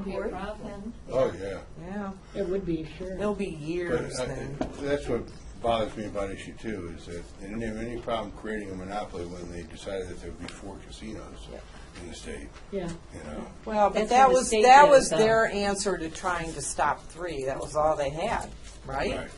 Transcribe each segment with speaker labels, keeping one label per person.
Speaker 1: be a problem.
Speaker 2: Oh, yeah.
Speaker 3: Yeah,
Speaker 4: It would be, sure.
Speaker 3: it'll be
Speaker 2: But uh,
Speaker 3: years
Speaker 2: I-
Speaker 3: then.
Speaker 2: That's what bothers me about issue two, is that they didn't have any problem creating a monopoly when they decided that there would be four casinos in the state,
Speaker 4: Yeah.
Speaker 2: you know?
Speaker 3: Well, but
Speaker 1: That's
Speaker 3: that
Speaker 1: where the
Speaker 3: was,
Speaker 1: state
Speaker 3: that
Speaker 1: did it,
Speaker 3: was
Speaker 1: though.
Speaker 3: their answer to trying to stop three. That was all they had, right?
Speaker 2: Right.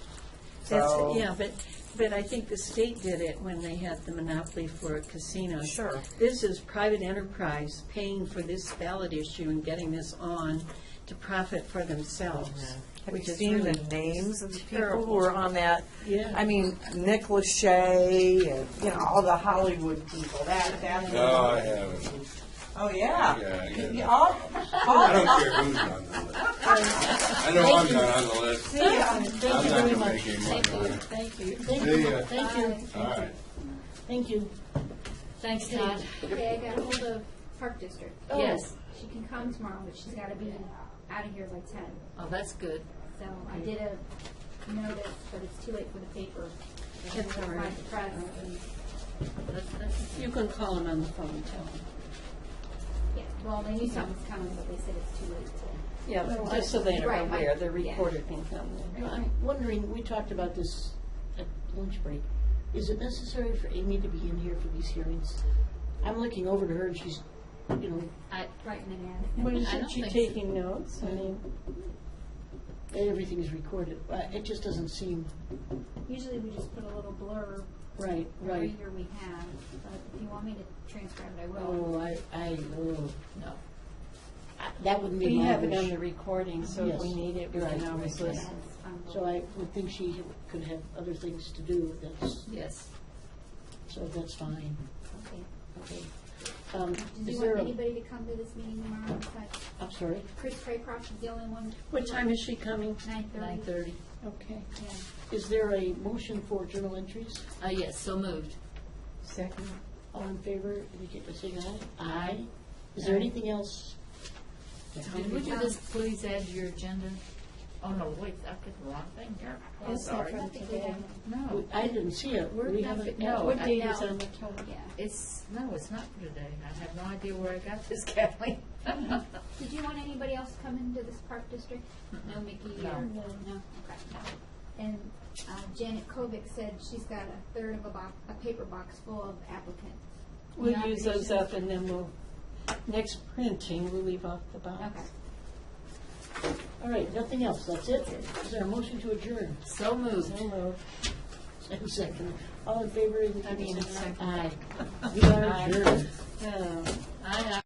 Speaker 3: So-
Speaker 1: That's, yeah, but, but I think the state did it when they had the monopoly for casinos.
Speaker 3: Sure.
Speaker 1: This is private enterprise paying for this ballot issue and getting this on to profit for themselves.
Speaker 3: Have you
Speaker 1: which is
Speaker 3: seen the
Speaker 1: really
Speaker 3: names of the people who
Speaker 1: terrible.
Speaker 3: were on that?
Speaker 1: Yeah.
Speaker 3: I mean, Nick Lachey and, you know, all the Hollywood people, that, that.
Speaker 2: No, I haven't.
Speaker 3: Oh, yeah.
Speaker 2: Uh, Yeah, yeah.
Speaker 3: You all-
Speaker 2: I don't care who's on the list. I know I'm not on the list.
Speaker 1: Thank you.
Speaker 2: I'm
Speaker 1: Thank you
Speaker 2: not
Speaker 1: very
Speaker 2: gonna
Speaker 1: much.
Speaker 2: make any money
Speaker 1: Thank
Speaker 2: on
Speaker 1: you,
Speaker 2: it.
Speaker 1: thank you, thank
Speaker 2: See
Speaker 1: you,
Speaker 2: ya.
Speaker 1: thank you,
Speaker 2: All right.
Speaker 1: thank you.
Speaker 5: Thanks, Todd.
Speaker 6: Okay, I got hold of Park District.
Speaker 4: Oh.
Speaker 1: Yes.
Speaker 6: She can come tomorrow, but she's gotta be out of here by ten.
Speaker 1: Oh, that's good.
Speaker 6: So I did a notice, but it's too late for the paper.
Speaker 1: That's all right.
Speaker 6: Find the press and-
Speaker 1: That's- that's- You can call him on the phone and tell him.
Speaker 6: yeah, well, they knew something was coming, but they said it's too late to.
Speaker 1: Yeah, but just so they're
Speaker 6: Right, I-
Speaker 1: aware, the
Speaker 6: yeah.
Speaker 1: reporter can come.
Speaker 6: Right.
Speaker 4: I'm wondering, we talked about this at lunch break. Is it necessary for Amy to be in here for these hearings? I'm looking over to her and she's, you know,
Speaker 1: I,
Speaker 6: Writing an ad.
Speaker 4: But
Speaker 1: I
Speaker 4: isn't
Speaker 1: don't
Speaker 4: she
Speaker 1: think
Speaker 4: taking notes? I mean, everything's recorded. Uh, It just doesn't seem
Speaker 6: Usually we just put a little blurb
Speaker 4: right,
Speaker 6: every
Speaker 4: right.
Speaker 6: year we have, but if you want me to transcribe it, I will.
Speaker 4: Oh, I, I, oh,
Speaker 1: no.
Speaker 4: I- that would be
Speaker 1: We
Speaker 4: my
Speaker 1: have it on
Speaker 4: wish.
Speaker 1: the recording, so if we
Speaker 4: Yes.
Speaker 1: need it, we
Speaker 4: Right,
Speaker 1: can always
Speaker 4: right, right.
Speaker 1: listen.
Speaker 6: Um,
Speaker 4: So I would think she could have other things to do. That's,
Speaker 1: Yes.
Speaker 4: so that's fine.
Speaker 6: okay.
Speaker 4: Okay. Um,
Speaker 6: Did
Speaker 4: is
Speaker 6: you
Speaker 4: there,
Speaker 6: want
Speaker 4: a-
Speaker 6: anybody to come to this meeting tomorrow? But
Speaker 4: I'm sorry,
Speaker 6: Chris Craycroft is the only one.
Speaker 4: what time is she coming?
Speaker 6: Nine thirty.
Speaker 1: Nine thirty.
Speaker 4: Okay.
Speaker 6: Yeah.
Speaker 4: Is there a motion for journal entries?
Speaker 1: Ah, yes, so moved. Second.
Speaker 4: All in favor, indicate by saying aye. Aye. Is there
Speaker 1: Aye.
Speaker 4: anything else?
Speaker 1: Did would you just please add to your agenda? Oh, no, wait, I've got the wrong thing here. I'm
Speaker 6: It's not
Speaker 1: sorry.
Speaker 6: for today.
Speaker 1: No,
Speaker 4: I didn't see it.
Speaker 1: We're
Speaker 4: We
Speaker 1: not-
Speaker 4: haven't.
Speaker 6: Oh,
Speaker 1: no,
Speaker 4: What
Speaker 1: I-
Speaker 4: date
Speaker 1: no.
Speaker 4: is on the calendar?
Speaker 6: Yeah.
Speaker 1: it's, no, it's not for today. I have no idea where I got this, Kathleen.
Speaker 6: Did you want anybody else to come into this park district? No, Mickey or?
Speaker 1: No.
Speaker 6: Okay. And uh, Janet Kovic said she's got a third of a box, a paper box full of applicants.
Speaker 4: We'll use those up and then we'll, next printing, we'll leave off the box.
Speaker 6: Okay.
Speaker 4: All right, nothing else. That's it. Is there a motion to adjourn?
Speaker 1: So moved.
Speaker 4: And second. All in favor,
Speaker 1: I
Speaker 4: indicate by
Speaker 1: mean, uh,
Speaker 4: saying
Speaker 1: second.
Speaker 4: aye. Aye. We are
Speaker 1: Aye.
Speaker 4: adjourned.
Speaker 1: Oh, I-